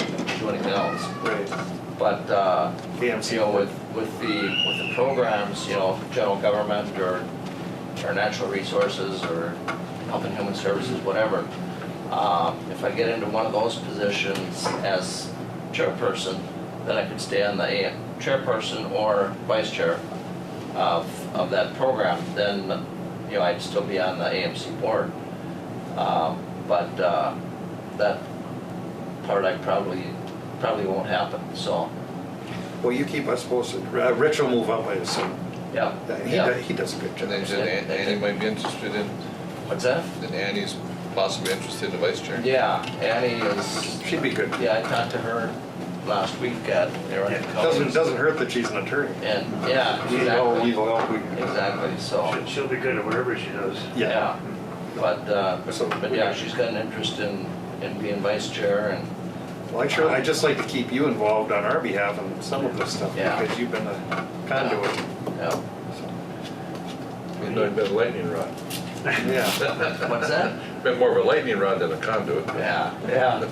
anything else. Right, But, uh, you know, BMC, with, with the, with the programs, you know, general government or, or natural resources or health and human services, whatever, um, if I get into one of those positions as chairperson, then I could stay on the AM chairperson or vice chair of, of that program, then, you know, I'd still be on the AMC board. Um, But uh, that part I probably, probably won't happen, so, well, you keep us posted, Uh, Rich will move up, I assume, yeah. That- he, yeah. do- he does a good And then job. you said Annie might be interested in, What's that? and Annie's possibly interested in the vice chair. Yeah, Annie is, She'd be good. yeah, I talked to her last week at Aaron Doesn't, Cummings. doesn't hurt that she's an attorney. And, yeah, You know, exactly, evil elk, we- exactly, so, She'll- She'll be good at whatever she does. yeah. yeah. But, uh, So- but yeah, she's got an interest in, in being vice chair and, Well, I sure, I'd just like to keep you involved on our behalf on some of this stuff, Yeah. because you've been a conduit. yeah. He's not been a lightning rod. Yeah, What's that? Been more of a lightning rod than a conduit. Yeah, yeah,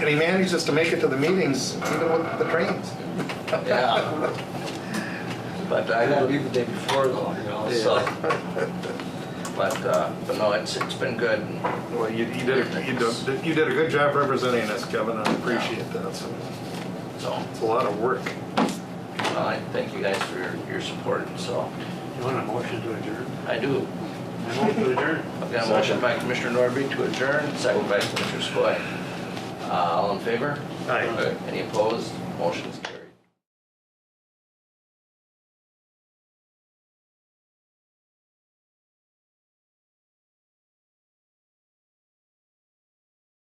and he manages to make it to the meetings, even with the trains. yeah. But I gotta leave the day before though, you know, so. But, uh, but no, it's, it's been good. Well, you, you did, a- you did, you did a good job representing us, Kevin, and I appreciate that, so, So, it's a lot of work. well, I thank you guys for your, your support, so. You want a motion to adjourn? I do. I move to adjourn. I've got a motion by Commissioner Norby to adjourn, second by Commissioner Skoye. Uh, All in favor? Aye. Right. Any opposed? Motion's carried.